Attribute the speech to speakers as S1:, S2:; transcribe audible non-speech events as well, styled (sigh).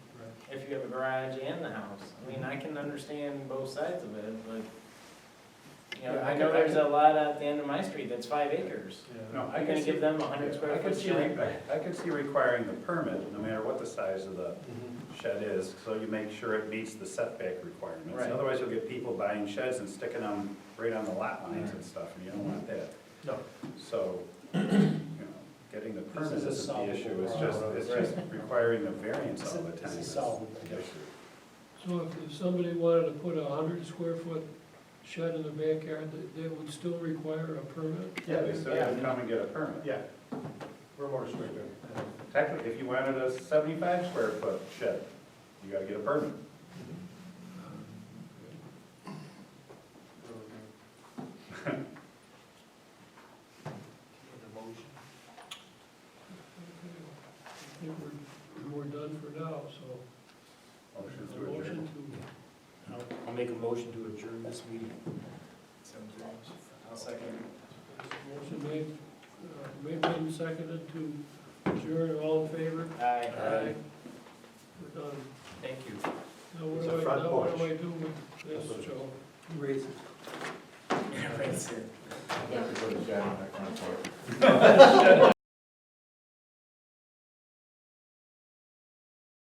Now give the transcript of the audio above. S1: you have a garage and the house. I mean, I can understand both sides of it, but, you know,
S2: Yeah, I
S1: I know
S2: can- I
S1: there's a lot at the end of my street that's five acres.
S2: No,
S1: You're
S2: I can
S1: gonna
S2: see,
S1: give them a hundred
S2: I
S1: square
S2: can
S1: foot
S2: see,
S1: shed?
S2: re- I I can see requiring the permit, no matter what the size of the shed is, so you make sure it meets the setback requirements.
S1: Right.
S2: Otherwise, you'll get people buying sheds and sticking them right on the lot lines and stuff, and you don't want that.
S3: No.
S2: So, you know, getting the permit
S3: This is a
S2: isn't the issue, it's
S3: solvable
S2: just,
S3: problem.
S2: it's just requiring the variance all the time.
S3: This is
S2: is
S3: solvable.
S2: the issue.
S4: So if- if somebody wanted to put a hundred square foot shed in the backyard, that- that would still require a permit?
S2: Yeah, they still have to
S3: Yeah.
S2: come and get a permit.
S3: Yeah, we're more restrictive.
S2: Technically, if you wanted a seventy-five square foot shed, you gotta get a permit.
S4: I think we're, we're done for now, so.
S2: Motion
S4: a
S2: to adjourn.
S4: motion to,
S3: I'll make a motion to adjourn this meeting.
S1: So, I'll second. (laughs)
S4: motion made, uh, made and seconded to adjourn, all in favor?
S1: Aye.
S4: We're done.
S1: Thank you.
S4: Now, what
S2: It's
S4: do
S2: a
S4: I,
S2: front
S4: now what do
S2: porch.
S4: I do with this, Joe?
S3: Raise it.
S1: Right, sir.
S5: Yeah.
S2: Go to Jen, that kind of part.